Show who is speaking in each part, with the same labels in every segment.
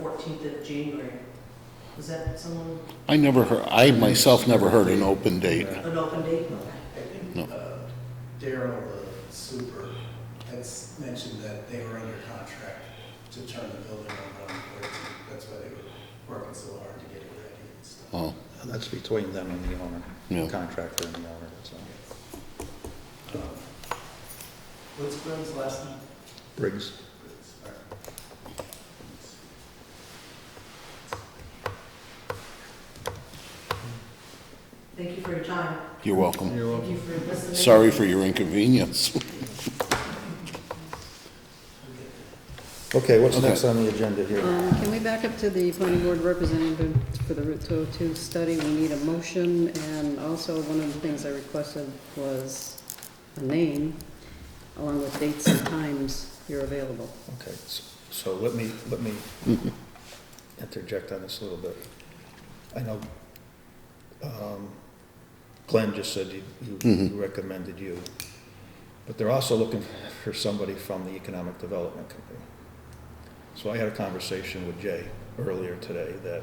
Speaker 1: fourteenth of January. Is that someone,
Speaker 2: I never heard, I myself never heard an open date.
Speaker 1: an open date?
Speaker 3: I think
Speaker 2: No.
Speaker 3: uh, Daryl, the super, has mentioned that they were under contract to turn the building over on the 14th. That's why they were working so hard to get it ready and stuff.
Speaker 2: Oh,
Speaker 4: That's between them and the owner,
Speaker 2: Yeah.
Speaker 4: contractor and the owner, so.
Speaker 3: Um, What's Glenn's last name?
Speaker 4: Briggs.
Speaker 3: Sorry.
Speaker 1: Thank you for your time.
Speaker 2: you're welcome.
Speaker 1: Thank you for listening.
Speaker 2: Sorry for your inconvenience.
Speaker 4: Okay, what's
Speaker 2: Okay.
Speaker 4: next on the agenda here?
Speaker 5: Um, Can we back up to the planning board representative for the Route 202 study? We need a motion, and also one of the things I requested was a name, along with dates and times you're available.
Speaker 4: Okay, s- so let me, let me interject on this a little bit. I know um, Glenn just said he- he
Speaker 2: Mhm.
Speaker 4: recommended you, but they're also looking for somebody from the Economic Development Company. So I had a conversation with Jay earlier today that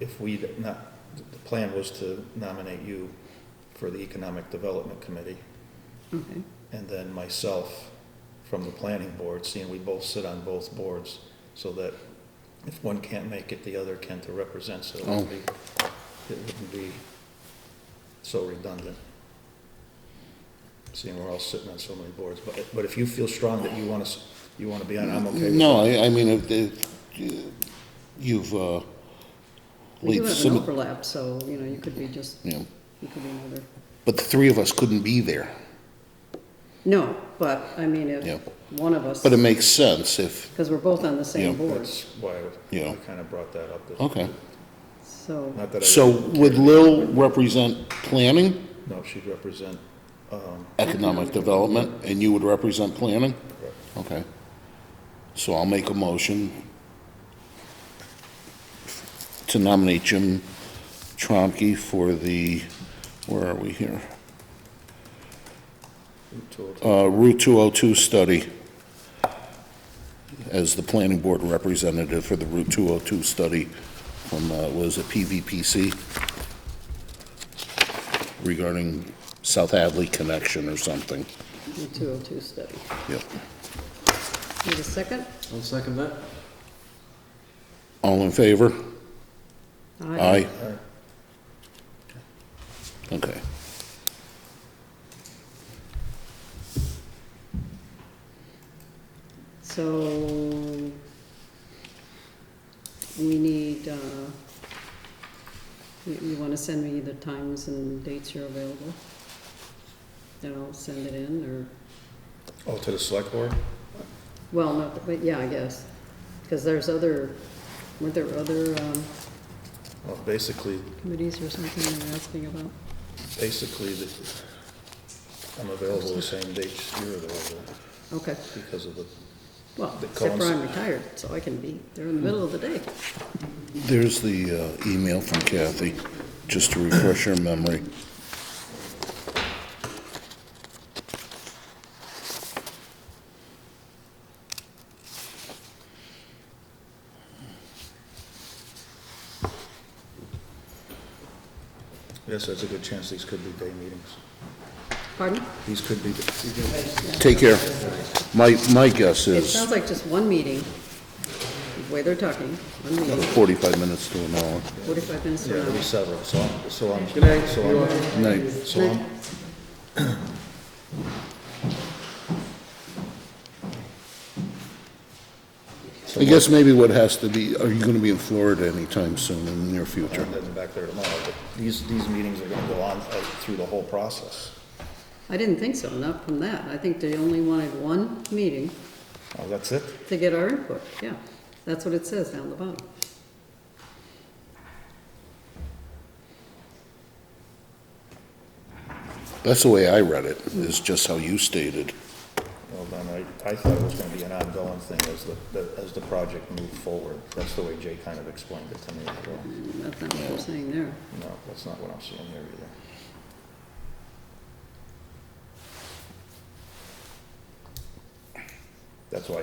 Speaker 4: if we, not, the plan was to nominate you for the Economic Development Committee
Speaker 5: Okay.
Speaker 4: and then myself from the planning board, seeing we both sit on both boards, so that if one can't make it, the other can to represent, so it wouldn't be,
Speaker 2: Oh.
Speaker 4: it wouldn't be so redundant. Seeing we're all sitting on so many boards, but, but if you feel strong that you wanna, s- you wanna be on, I'm okay with that.
Speaker 2: No, I, I mean, it- it- you've, uh,
Speaker 5: We do
Speaker 2: lead
Speaker 5: have an
Speaker 2: some,
Speaker 5: overlap, so, you know, you could be just,
Speaker 2: you know,
Speaker 5: you could be another.
Speaker 2: but the three of us couldn't be there.
Speaker 5: No, but, I mean,
Speaker 2: Yeah.
Speaker 5: if one of us,
Speaker 2: But it makes sense if,
Speaker 5: because we're both on the same
Speaker 2: Yeah,
Speaker 5: board,
Speaker 4: That's why I-
Speaker 2: Yeah.
Speaker 4: I kinda brought that up. that-
Speaker 2: okay.
Speaker 5: so.
Speaker 4: Not that I.
Speaker 2: So would Lil represent planning,
Speaker 4: No, she'd represent, um,
Speaker 2: economic development, and you would represent planning?
Speaker 4: Correct.
Speaker 2: Okay. So I'll make a motion to nominate Jim Tromke for the, where are we here?
Speaker 4: Route 202.
Speaker 2: Uh, Route 202 study as the planning board representative for the Route 202 study from, uh, was it PVPC? Regarding South Hadley connection or something.
Speaker 5: The 202 study.
Speaker 2: Yep.
Speaker 5: Need a second?
Speaker 6: I'll second that.
Speaker 2: All in favor? Aye.
Speaker 4: Aye.
Speaker 2: Okay.
Speaker 5: So we need, uh, you, you wanna send me the times and dates you're available? Then I'll send it in, or,
Speaker 4: Oh, to the select board?
Speaker 5: well, not, but yeah, I guess. Cause there's other, weren't there other, um,
Speaker 4: Well, basically,
Speaker 5: committees or something they were asking about?
Speaker 4: basically, the- I'm available the same dates you're available
Speaker 5: Okay,
Speaker 4: because of the,
Speaker 5: well,
Speaker 4: The
Speaker 5: except for
Speaker 4: cons-
Speaker 5: I'm retired, so I can be there in the middle of the day.
Speaker 2: There's the uh, email from Kathy, just to refresh your memory.
Speaker 4: yes, there's a good chance these could be day meetings.
Speaker 5: Pardon?
Speaker 4: These could be,
Speaker 2: Take care. My, my guess
Speaker 5: It
Speaker 2: is
Speaker 5: sounds like just one meeting, the way they're talking, one meeting,
Speaker 2: 45 minutes to an hour.
Speaker 5: forty-five minutes
Speaker 4: yeah,
Speaker 5: from
Speaker 4: there'll be
Speaker 5: now.
Speaker 4: several, so I'm, so I'm.
Speaker 6: Good night.
Speaker 4: So
Speaker 6: You
Speaker 4: I'm,
Speaker 2: Night.
Speaker 4: so I'm,
Speaker 2: I guess maybe what has to be, are you going to be in Florida anytime soon in the near future?
Speaker 4: I'm heading back there tomorrow, but these, these meetings are gonna go on uh, through the whole process.
Speaker 5: I didn't think so, not from that. I think they only wanted one meeting
Speaker 4: Oh, that's it?
Speaker 5: to get our input, yeah. That's what it says down the bottom.
Speaker 2: That's the way I read it, is just how you stated.
Speaker 4: Well, then I, I thought it was gonna be an ongoing thing as the- the, as the project moved forward. That's the way Jay kind of explained it to me as well.
Speaker 5: That's not what I'm saying there.
Speaker 4: No, that's not what I'm seeing here either. That's why I